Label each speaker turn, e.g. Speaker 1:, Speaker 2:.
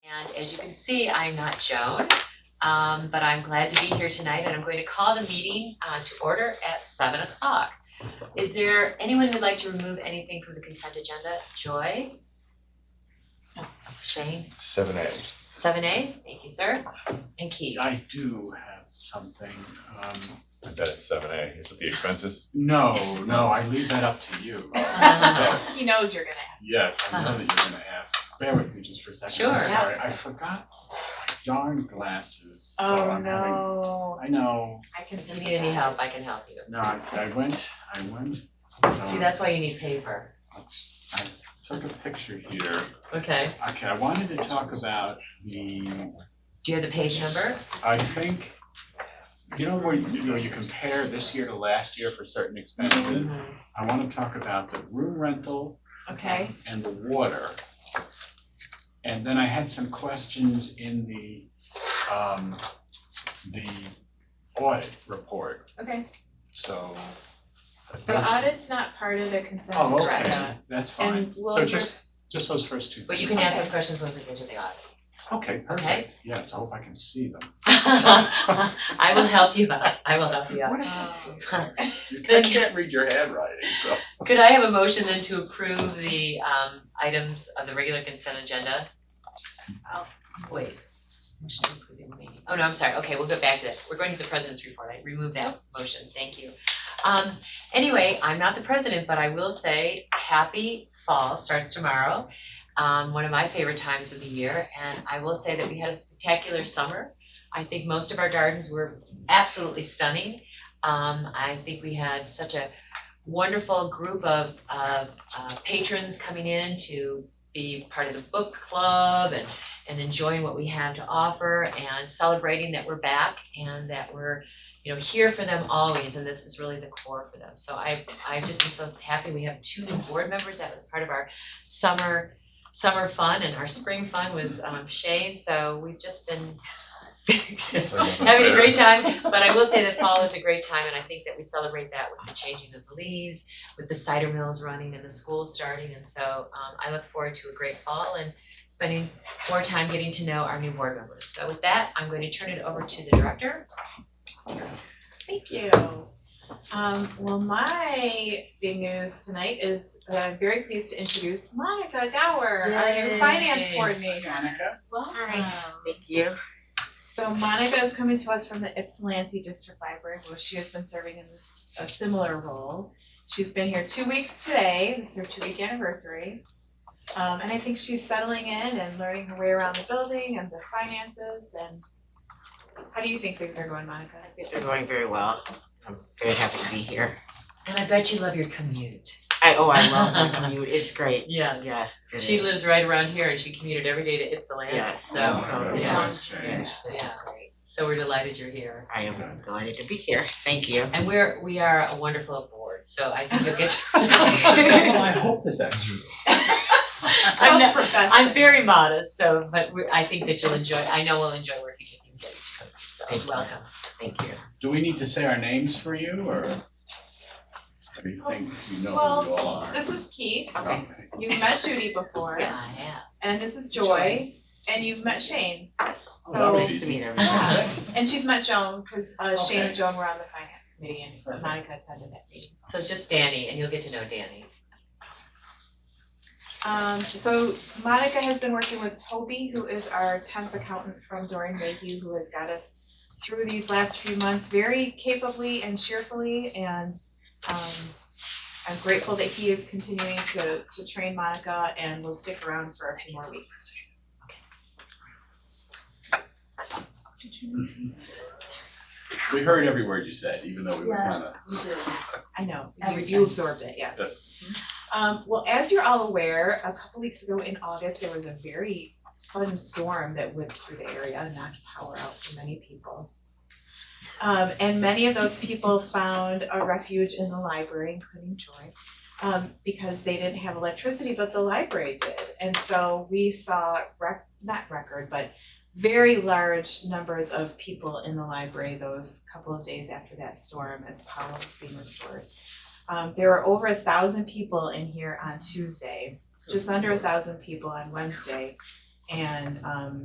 Speaker 1: As you can see, I'm not Joan, um, but I'm glad to be here tonight and I'm going to call the meeting uh, to order at seven o'clock. Is there anyone who'd like to remove anything from the consent agenda? Joy? No. Shane?
Speaker 2: Seven A.
Speaker 1: Seven A? Thank you, sir. And Keith?
Speaker 3: I do have something, um,
Speaker 2: I bet it's seven A. Is it the expenses?
Speaker 3: no, no, I leave that up to you. So,
Speaker 4: Um,
Speaker 1: Um,
Speaker 4: He knows you're gonna ask.
Speaker 3: yes, I know that you're gonna ask, bear with me just for a second,
Speaker 1: Uh-huh. Sure.
Speaker 3: I'm
Speaker 1: Yeah.
Speaker 3: sorry, I forgot my darn glasses, so
Speaker 1: Oh,
Speaker 3: I'm having,
Speaker 4: no.
Speaker 3: I know,
Speaker 4: I can
Speaker 1: If
Speaker 4: see
Speaker 1: you need any help, I can help you.
Speaker 3: no, I see, I went, I went. um,
Speaker 1: See, that's why you need paper.
Speaker 3: Let's, I took a picture here,
Speaker 1: Okay.
Speaker 3: okay, I wanted to talk about the,
Speaker 1: Do you have the page number?
Speaker 3: I think, you know, where you, you know, you compare this year to last year for certain expenses? I wanna talk about the room rental
Speaker 4: Okay,
Speaker 3: um, and the water. And then I had some questions in the, um, the audit report,
Speaker 4: okay.
Speaker 3: so.
Speaker 4: The audit's not part of the consent
Speaker 3: Oh,
Speaker 4: agenda.
Speaker 3: okay, that's
Speaker 4: And
Speaker 3: fine.
Speaker 4: will
Speaker 3: So
Speaker 4: your-
Speaker 3: just, just those first two things.
Speaker 1: But you can ask those questions when we get to the audit.
Speaker 3: Okay, perfect. Yes, I hope I can see them.
Speaker 1: I will help you out. I will help you out.
Speaker 3: What does that say? You
Speaker 1: Then-
Speaker 3: can't read your handwriting, so.
Speaker 1: Could I have a motion then to approve the um items of the regular consent agenda?
Speaker 4: I'll-
Speaker 1: Wait. Motion to approve the remaining- Oh, no, I'm sorry. Okay, we'll go back to that. We're going to the president's report. I removed that motion. Thank you. Um anyway, I'm not the president, but I will say happy fall starts tomorrow. Um one of my favorite times of the year and I will say that we had a spectacular summer. I think most of our gardens were absolutely stunning. Um I think we had such a wonderful group of of uh patrons coming in to be part of the book club and and enjoying what we have to offer and celebrating that we're back and that we're you know here for them always and this is really the core for them. So I I just am so happy we have two new board members. That was part of our summer summer fun and our spring fun was um Shane, so we've just been having a great time, but I will say that fall is a great time, and I think that we celebrate that with the changing of the leaves, with the cider mills running and the school starting, and so um I look forward to a great fall and spending more time getting to know our new board members. So with that, I'm going to turn it over to the director.
Speaker 4: Thank you. Um, well, my big news tonight is that I'm very pleased to introduce Monica Gower, our new
Speaker 1: Yay.
Speaker 4: finance coordinator.
Speaker 3: Monica?
Speaker 4: Welcome.
Speaker 5: Thank you.
Speaker 4: So Monica is coming to us from the Ypsilanti District Library, where she has been serving in this, a similar role. She's been here two weeks today, this is her two-week anniversary. Um, and I think she's settling in and learning her way around the building and the finances and how do you think things are going, Monica?
Speaker 5: They're going very well. I'm very happy to be here.
Speaker 1: And I bet you love your commute.
Speaker 5: I oh, I love my commute. It's great.
Speaker 1: Yes.
Speaker 5: Yes. it
Speaker 1: She
Speaker 5: is.
Speaker 1: lives right around here and she commuted every day to Ypsilanti,
Speaker 5: Yes.
Speaker 1: so
Speaker 3: Oh,
Speaker 1: yeah.
Speaker 3: that's
Speaker 5: Yeah,
Speaker 3: changed.
Speaker 5: this is
Speaker 1: Yeah.
Speaker 5: great.
Speaker 1: so we're delighted you're here.
Speaker 5: I am delighted to be here. Thank you.
Speaker 1: And we're we are a wonderful board, so I think you'll get
Speaker 3: Well, I hope that that's true.
Speaker 1: I'm not-
Speaker 4: Self-professed.
Speaker 1: I'm very modest, so, but we, I think that you'll enjoy, I know we'll enjoy working with you, Gage, so
Speaker 5: Thank you.
Speaker 1: welcome.
Speaker 5: Thank you.
Speaker 3: Do we need to say our names for you, or? Or you think you know who you all are?
Speaker 4: This is Keith,
Speaker 5: Okay.
Speaker 3: Okay.
Speaker 4: you've met Judy before,
Speaker 1: Yeah, I have.
Speaker 4: and this is Joy, and you've met Shane. So.
Speaker 3: that was
Speaker 5: Nice to meet everyone.
Speaker 4: Yeah. And she's met Joan, because uh Shane
Speaker 3: Okay.
Speaker 4: and Joan were on the finance committee and
Speaker 3: Perfect.
Speaker 4: Monica attended that meeting.
Speaker 1: So it's just Danny, and you'll get to know Danny.
Speaker 4: Um so Monica has been working with Toby, who is our temp accountant from Dorian Mayhew, who has got us through these last few months very capably and cheerfully and um I'm grateful that he is continuing to to train Monica and will stick around for a few more weeks.
Speaker 3: We heard every word you said, even though we were kind of.
Speaker 4: we do. I know, you-
Speaker 1: Every
Speaker 4: you absorbed it, yes. Um, well, as you're all aware, a couple weeks ago in August, there was a very sudden storm that went through the area and knocked power out for many people. Um, and many of those people found a refuge in the library, including Joy, um, because they didn't have electricity, but the library did. And so we saw rec- not record, but very large numbers of people in the library those couple of days after that storm as power was being restored. Um, there were over a thousand people in here on Tuesday, just under a thousand people on Wednesday. And um,